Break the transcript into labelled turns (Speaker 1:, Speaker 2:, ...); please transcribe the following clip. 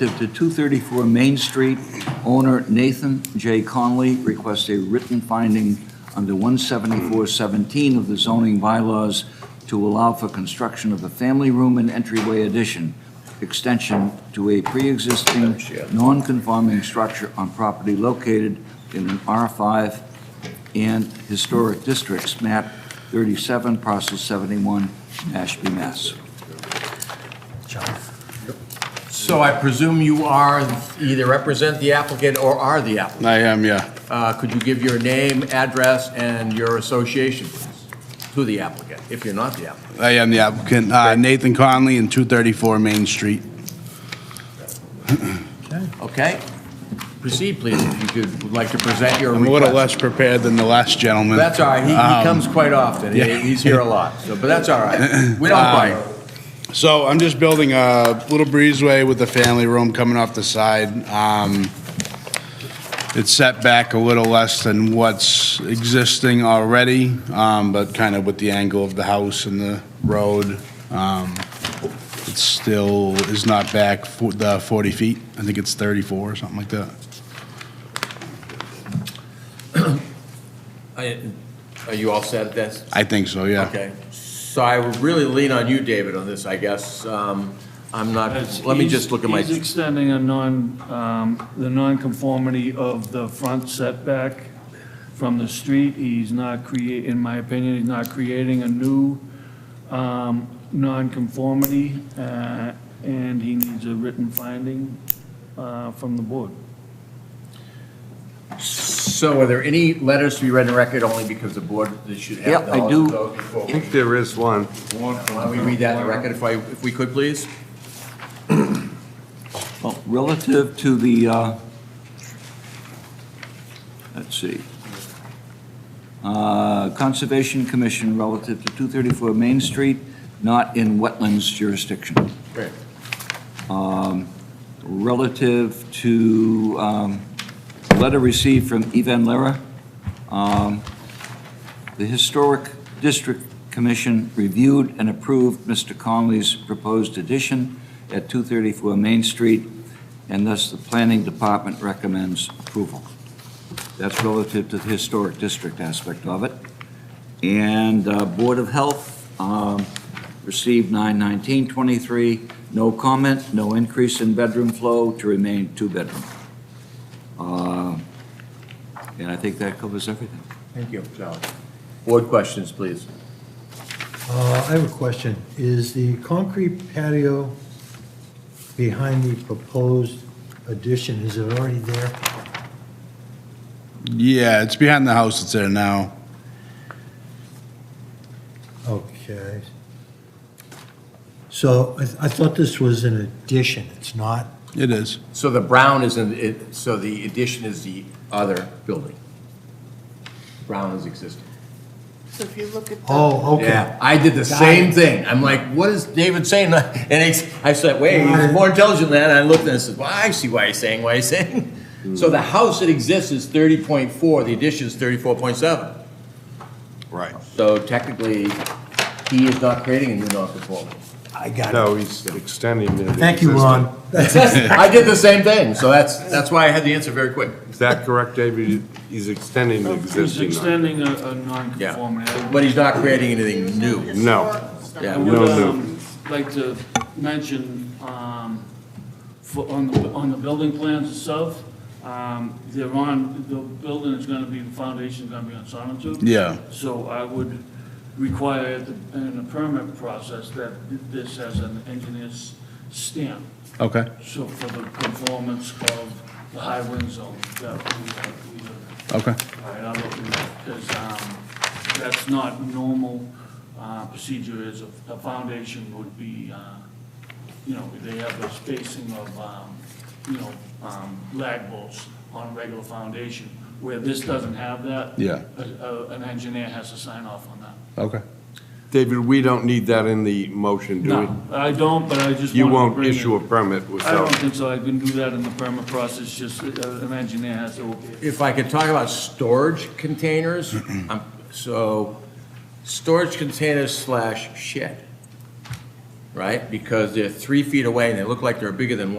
Speaker 1: Relative to 234 Main Street, owner Nathan J. Conley requests a written finding under 17417 of the zoning bylaws to allow for construction of a family room and entryway addition, extension to a pre-existing non-conforming structure on property located in an R5 and Historic Districts, map 37, parcel 71, Mashpee, Mass.
Speaker 2: So I presume you are, either represent the applicant or are the applicant.
Speaker 3: I am, yeah.
Speaker 2: Uh, Could you give your name, address, and your association, please, to the applicant, if you're not the applicant?
Speaker 3: I am the applicant, uh, Nathan Conley in 234 Main Street.
Speaker 2: Okay? Proceed, please, if you could, would like to present your
Speaker 3: I'm a little
Speaker 2: request.
Speaker 3: less prepared than the last gentleman.
Speaker 2: That's all right, he he
Speaker 3: Um,
Speaker 2: comes quite often, He-
Speaker 3: yeah. Um,
Speaker 2: he's here a lot, so, but that's all right. We don't bite.
Speaker 3: So I'm just building a little breezeway with a family room coming off the side. Um, It's set back a little less than what's existing already, um, but kind of with the angle of the house and the road. um, It still is not back for the 40 feet. I think it's 34 or something like that.
Speaker 2: I- Are you all set at this?
Speaker 3: I think so, yeah.
Speaker 2: Okay, so I would really lean on you, David, on this, I guess. Um, I'm not,
Speaker 4: It's-
Speaker 2: let me
Speaker 4: he's-
Speaker 2: just look at my,
Speaker 4: He's extending a non, um, the nonconformity of the front setback from the street. He's not create, in my opinion, he's not creating a new um, nonconformity, uh, and he needs a written finding uh, from the board.
Speaker 2: so are there any letters to be read in record only because the board should have
Speaker 1: Yep, I
Speaker 2: knowledge
Speaker 1: do.
Speaker 2: of those before
Speaker 5: I
Speaker 2: we-
Speaker 5: think there is one.
Speaker 2: Why don't we read that in the record if I, if we could, please?
Speaker 1: Well, relative to the, uh, let's see, Uh, Conservation Commission relative to 234 Main Street, not in wetlands jurisdiction.
Speaker 2: Great.
Speaker 1: Relative to um, letter received from Ivan Lera, um, the Historic District Commission reviewed and approved Mr. Conley's proposed addition at 234 Main Street, and thus the Planning Department recommends approval. That's relative to the Historic District aspect of it. And uh, Board of Health um, received 91923, no comment, no increase in bedroom flow to remain two-bedroom. Uh, And I think that covers everything.
Speaker 2: Thank you. Sally. Board questions, please.
Speaker 6: Uh, I have a question. Is the concrete patio behind the proposed addition, is it already there?
Speaker 3: Yeah, it's behind the house that's there now.
Speaker 6: Okay. So I I thought this was an addition, it's not?
Speaker 3: It is.
Speaker 2: So the brown is in, it- so the addition is the other building. Brown is existing.
Speaker 7: So if you look at the.
Speaker 6: Oh, okay.
Speaker 2: Yeah, I did the same thing. I'm like, what is David saying? And it's, I said, wait, he's more intelligent than that. And I looked and I said, well, I see why he's saying what he's saying. So the house that exists is thirty point four, the addition is thirty-four point seven.
Speaker 3: Right.
Speaker 2: So technically, he is not creating a new non-conformity.
Speaker 6: I got it.
Speaker 5: No, he's extending the.
Speaker 6: Thank you,
Speaker 5: existing.
Speaker 6: Ron.
Speaker 2: I did the same thing, so that's, that's why I had the answer very quick.
Speaker 5: Is that correct, David? He's extending the
Speaker 4: He's
Speaker 5: existing. one.
Speaker 4: extending a, a
Speaker 2: Yeah,
Speaker 4: nonconformity. I
Speaker 2: but he's not creating anything new.
Speaker 5: No.
Speaker 2: Yeah.
Speaker 4: I would
Speaker 5: No, no.
Speaker 4: um, like to mention, um, for, on the, on the building plans itself, um, they're on, the building is gonna be, the foundation's gonna be on sonotube.
Speaker 3: Yeah.
Speaker 4: So I would require at the- in the permit process that this has an engineer's stamp,
Speaker 3: Okay.
Speaker 4: so for the conformance of the high wind zone that we have, we have
Speaker 3: Okay.
Speaker 4: all right, I'll look into that, because, um, that's not normal, uh, procedure is a, a foundation would be, uh, you know, they have a spacing of, um, you know, um, lag bolts on a regular foundation, where this doesn't have that.
Speaker 3: Yeah.
Speaker 4: A, a, an engineer has to sign off on that.
Speaker 3: Okay.
Speaker 5: David, we don't need that in the motion, do
Speaker 4: No,
Speaker 5: we?
Speaker 4: I don't, but I just
Speaker 5: You
Speaker 4: wanted to
Speaker 5: won't
Speaker 4: bring it.
Speaker 5: issue a permit
Speaker 4: I don't
Speaker 5: without,
Speaker 4: think so, I can do that in the permit process, just, uh, an engineer has to, okay.
Speaker 2: If I could talk about storage containers, um, so, storage containers slash shed, right? Because they're three feet away and they look like they're bigger than one.